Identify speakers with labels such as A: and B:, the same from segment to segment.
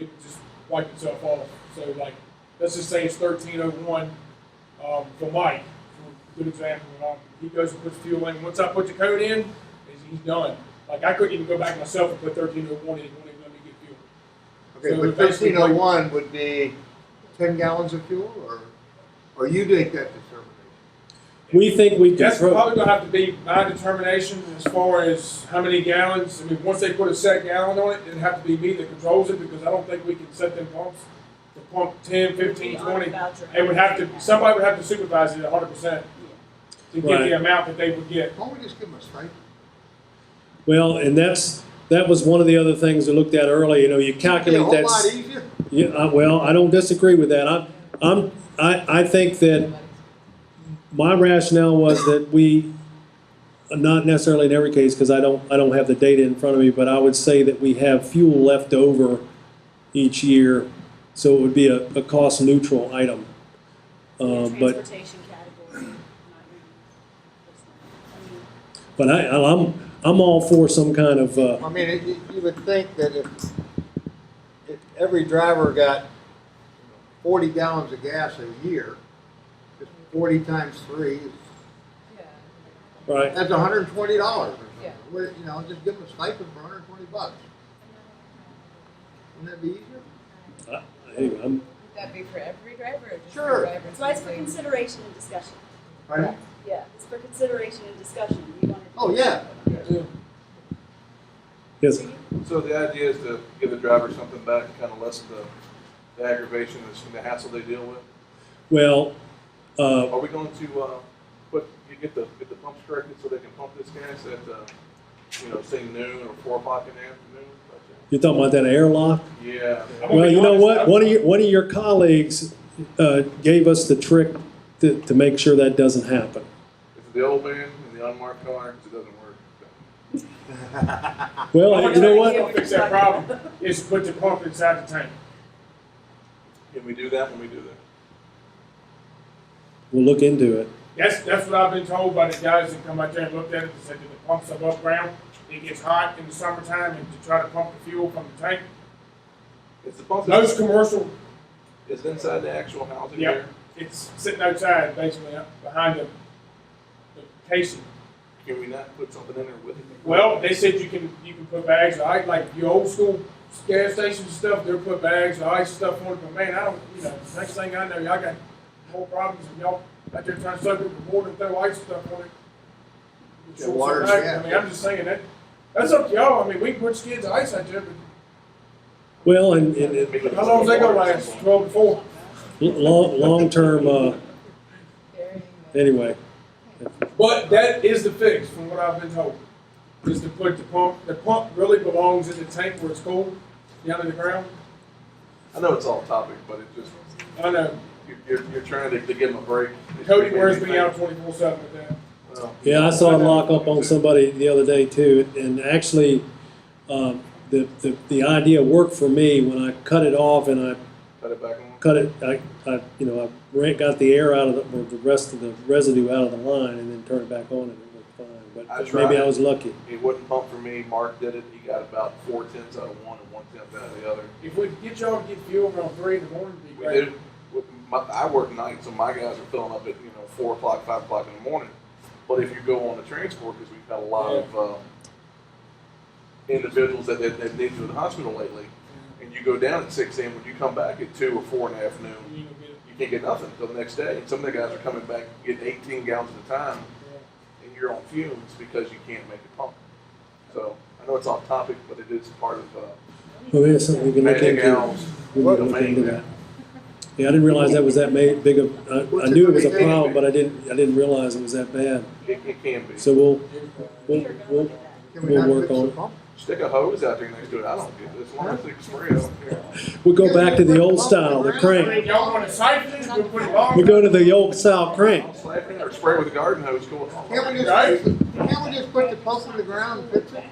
A: it just wiped itself off. So like, let's just say it's thirteen oh one um, for Mike. For a good example. Um, he goes and puts fuel in. Once I put the code in, he's, he's done. Like I couldn't even go back myself and put thirteen oh one in when he let me get fuel.
B: Okay,
A: So
B: but
A: basically-
B: thirteen oh one would be ten gallons of fuel, or, or you make that determination?
C: We think we can
A: That's
C: throw,
A: probably gonna have to be my determination as far as how many gallons. I mean, once they put a set gallon on it, it'd have to be me that controls it because I don't think we can set them pumps to pump 10, 15, 20. It would have to, somebody would have to supervise it hundred percent to get
C: Right.
A: the amount that they would get.
B: Why don't we just give them a stipend?
C: well, and that's, that was one of the other things I looked at earlier, you know, you
B: Be a
C: calculate
B: whole lot
C: that.
B: easier.
C: Yeah, uh, well, I don't disagree with that. I'm, I'm, I, I think that my rationale was that we, not necessarily in every case, because I don't, I don't have the data in front of me, but I would say that we have fuel left over each year, so it would be a, a cost neutral item. Uh, but
D: Transportation category.
C: But I, I'm, I'm all for some kind of, uh,
B: I mean, it- you- you would think that if, if every driver got you know, forty gallons of gas a year, just forty times three, is-
C: right,
B: that's hundred and twenty dollars or
E: Yeah.
B: something. Where, you know, just give them a stipend for hundred and twenty bucks. Wouldn't that be easier?
C: anyway, I'm,
E: Would that be for every driver or just
B: Sure.
E: for drivers?
D: That's why it's for consideration and discussion.
B: Right?
D: Yeah, it's for consideration and discussion. We wanted to-
B: Oh, yeah.
C: yes,
F: So the idea is to give the driver something back and kind of lessen the, the aggravation and the hassle they deal with.
C: well, uh,
F: Are we going to, uh, put, you get the, get the pumps corrected so they can pump this gas at, uh, you know, say noon or four o'clock in the afternoon?
C: you're talking about that airlock?
F: Yeah.
A: I'm gonna
C: Well,
A: be
C: you know
A: honest,
C: what,
A: I'm-
C: one of your, one of your colleagues, uh, gave us the trick to, to make sure that doesn't happen.
F: It's the old man and the unmarked car, 'cause it doesn't work.
C: Well, you know
A: I'm
C: what,
A: gonna Fix that problem is put the pump inside the tank.
F: Can we do that when we do that?
C: we'll look into it.
A: That's, that's what I've been told by the guys that come out there and looked at it and said that the pumps above ground, it gets hot in the summertime and to try to pump the fuel from the tank.
F: It's the pump,
A: Those commercial,
F: it's inside the actual housing
A: Yep.
F: there.
A: it's sitting outside basically up behind the, the casing.
F: Can we not put something in there with it?
A: Well, they said you can, you can put bags of ice, like your old school gas stations and stuff, they'll put bags of ice stuff on it, but man, I don't, you know, next thing I know, y'all got more problems and y'all out there trying to soak up the water and throw ice stuff on it.
B: Yeah, water's
A: I mean, I'm just saying that, that's up to y'all, I mean, we can put skids of ice out there, but
C: Well, and, and, and
A: how long's that gonna last, twelve to four?
C: long, long-term, uh,
E: Carrying the-
C: anyway,
A: But that is the fix, from what I've been told, is to put the pump, the pump really belongs in the tank where it's cold, down in the ground.
F: I know it's off topic, but it just,
A: I know,
F: you're, you're, you're trying to, to give them a break.
A: Cody wears me out twenty-four seven uh, with that.
F: Well,
C: Yeah, I saw a lock up on somebody the other day too, and actually, um, the, the, the idea worked for me when I cut it off and I
F: Cut it back on.
C: cut it, I, I, you know, I ran, got the air out of the, or the rest of the residue out of the line and then turned it back on and it worked fine, but
F: I
C: but
F: tried.
C: maybe I was lucky.
F: It wouldn't pump for me. Mark did it. He got about four tenths out of one and one tenth out of the other.
A: If we could get y'all to get fuel around three in the morning, it'd be
F: We
A: great.
F: did. with My, I work nights, so my guys are filling up at you know four o'clock, five o'clock in the morning. But if you go on the transport, because we've had a lot of uh, individuals that that, that need to go to the hospital lately, and you go down at six a.m. When you come back at two or four in the afternoon,
A: You know, get it.
F: you can't get nothing until the next day. And some of the guys are coming back getting eighteen gallons at a time, and you're on fumes because you can't make it pump. So I know it's off topic, but it is part of. Uh,
C: Well, maybe that's something we can look
F: Magic
C: into.
F: Owls.
C: We can look into that. Yeah, I didn't realize that was that ma- big of, I, I knew it was a problem, but I didn't, I didn't realize it was that bad.
F: It, it can be.
C: So we'll, we'll,
D: Peter, go
C: we'll,
D: look at that.
B: Can we
C: We'll
B: not fix
C: work
B: the
C: on it.
B: pump?
F: Stick a hose out there next to it. I don't get it. As long as it's spray, I don't care.
C: we'll go back to the old style, the crank.
A: If y'all wanna siphon it, we'll put it on.
C: We go to the old style crank.
F: I'll slap it or spray with a garden hose going on.
B: Can't we
A: Right?
B: just, can't we just put the pump in the ground and fix it?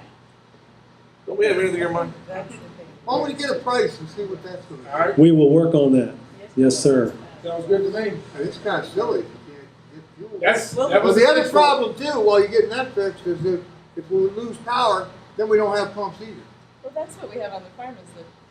F: Don't we have anything in your mind?
E: That's the thing.
B: Why don't we get a price and see what that's gonna
A: Alright,
C: We will work on that. Yes, sir.
A: sounds good to me.
B: be? It's kinda silly if you can't get fuel.
A: That's, that
B: Well,
A: was.
B: the other problem too, while you're getting that fixed, is if, if we lose power, then we don't have pumps either.
E: Well, that's what we have on the farm is the